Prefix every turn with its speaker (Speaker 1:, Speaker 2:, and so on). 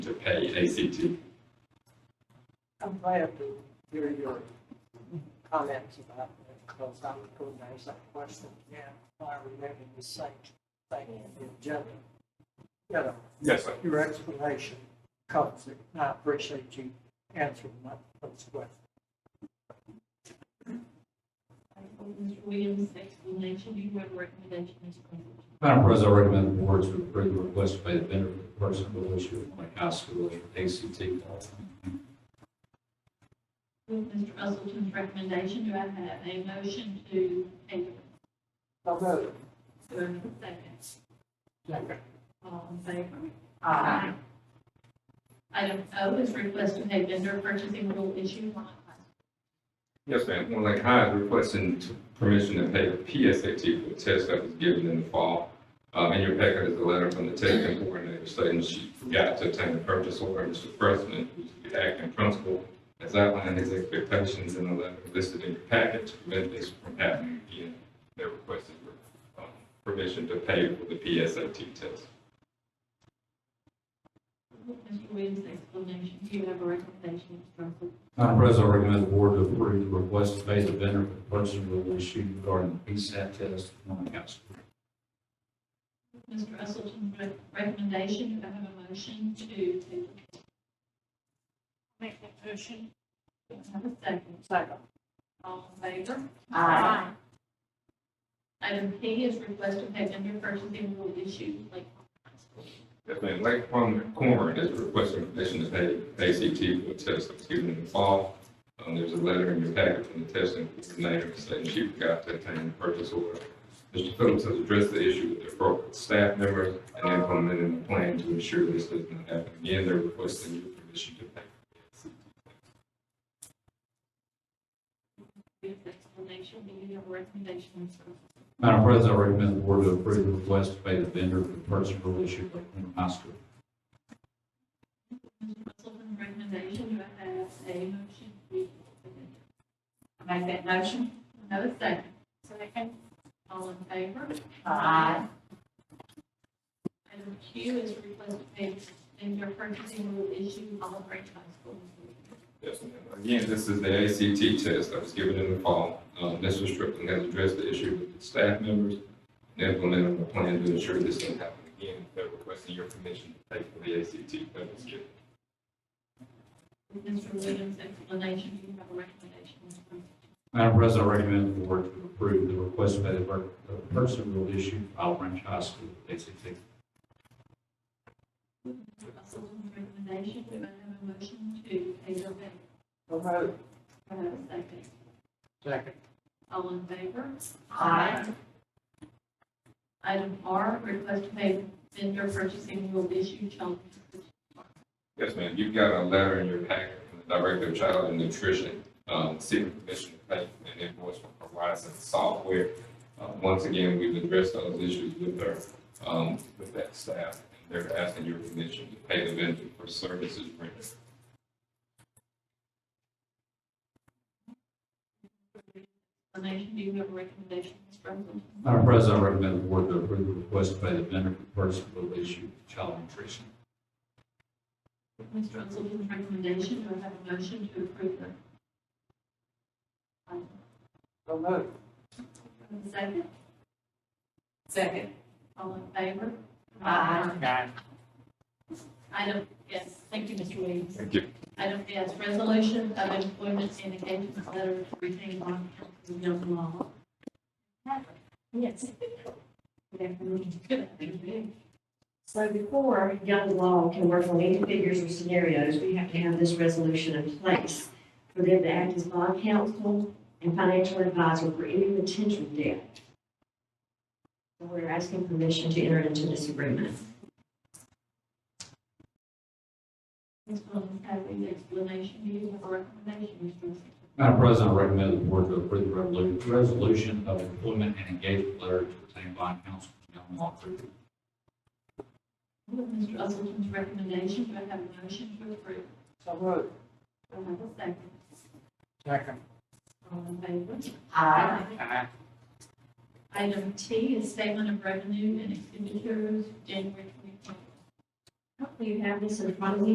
Speaker 1: to pay ACT.
Speaker 2: I'm glad to hear your comments about it, because I'm going to ask that question again, if I remember the same thing in the agenda. You know,
Speaker 3: Yes, sir.
Speaker 2: your explanation covers it, and I appreciate you answering my first question.
Speaker 4: Mr. Williams' explanation, do you have a recommendation, Mr. President?
Speaker 1: Madam President, I recommend the board to approve the request by the vendor for the person will issue of Lake High School as ACT ballot.
Speaker 4: With Mr. Usleton's recommendation, do I have a motion to table?
Speaker 2: So moved.
Speaker 4: Do I have a second?
Speaker 2: Second.
Speaker 4: All in favor? Aye. Item O is request to pay vendor purchasing rule issue one.
Speaker 3: Yes, ma'am. One Lake High is requesting t- permission to pay the PSAT for a test that was given in the fall. Um, in your packet is a letter from the testing coordinator stating she forgot to obtain a purchase order. Mr. President, who's the acting principal, has outlined his expectations in a letter listed in your packet to prevent this from happening again. They requested, um, permission to pay for the PSAT test.
Speaker 4: With Mr. Williams' explanation, do you have a recommendation, Mr. President?
Speaker 1: Madam President, I recommend the board to approve the request to pay the vendor for the person will issue regarding the PSAT test on Lake High School.
Speaker 4: With Mr. Usleton's re- recommendation, do I have a motion to table? Make that motion. Do I have a second?
Speaker 2: Second.
Speaker 4: All in favor?
Speaker 2: Aye.
Speaker 4: Item P is request to pay vendor purchasing rule issue Lake High School.
Speaker 3: Yes, ma'am. Lake Plum Corn is requesting permission to pay ACT for a test that was given in the fall. Um, there's a letter in your packet from the testing coordinator saying she forgot to obtain the purchase order. Mr. Phillips has addressed the issue with the appropriate staff members and implemented a plan to ensure this does not happen again. They're requesting your permission to pay.
Speaker 4: With explanation, do you have a recommendation, Mr. President?
Speaker 1: Madam President, I recommend the board to approve the request to pay the vendor for the person will issue Lake High School.
Speaker 4: Mr. Russell's recommendation, do I have a motion? I make that motion. Have a second. Second. All in favor? Aye. Item Q is request to pay vendor purchasing rule issue Olive Branch High School.
Speaker 3: Yes, ma'am. Again, this is the ACT test that was given in the fall. Um, Mr. Strickland has addressed the issue with the staff members and implemented a plan to ensure this doesn't happen again. They're requesting your permission to pay for the ACT that was given.
Speaker 4: With Mr. Williams' explanation, do you have a recommendation, Mr. President?
Speaker 1: Madam President, I recommend the board to approve the request to pay the per- the person will issue Olive Branch High School ACT.
Speaker 4: Mr. Russell's recommendation, do I have a motion to pay the vendor?
Speaker 2: So moved.
Speaker 4: Do I have a second?
Speaker 2: Second.
Speaker 4: All in favor? Aye. Item R, request to pay vendor purchasing rule issue child.
Speaker 3: Yes, ma'am. You've got a letter in your packet from the Director of Child and Nutrition, um, seeking permission to pay an invoice from Horizon Software. Uh, once again, we've addressed those issues with her, um, with that staff. They're asking your permission to pay the vendor for services rendered.
Speaker 4: Explanation, do you have a recommendation, Ms. President?
Speaker 1: Madam President, I recommend the board to approve the request by the vendor for person will issue child nutrition.
Speaker 4: Mr. Russell's recommendation, do I have a motion to approve the? Um,
Speaker 2: So moved.
Speaker 4: Second,
Speaker 5: Second.
Speaker 4: all in favor? Item, yes, thank you, Mr. Williams.
Speaker 3: Thank you.
Speaker 4: Item S, resolution of employment and engagement letter to retain on council of young law.
Speaker 6: Yes. So before young law can work on any figures or scenarios, we have to have this resolution in place for them to act as bond counsel and financial advisor for any potential debt. So we're asking permission to enter into this agreement.
Speaker 4: Ms. Williams, have any explanation, do you have a recommendation, Mr. Williams?
Speaker 1: Madam President, I recommend the board to approve the revolu- resolution of employment and engagement letter to retain bond counsel for young law group.
Speaker 4: With Mr. Usleton's recommendation, do I have a motion to approve?
Speaker 2: So moved.
Speaker 4: Do I have a second?
Speaker 2: Second.
Speaker 4: All in favor?
Speaker 6: Aye.
Speaker 2: Aye.
Speaker 4: Item T is statement of revenue and expenditures, January twenty twenty.
Speaker 6: Hopefully you have this in front of you.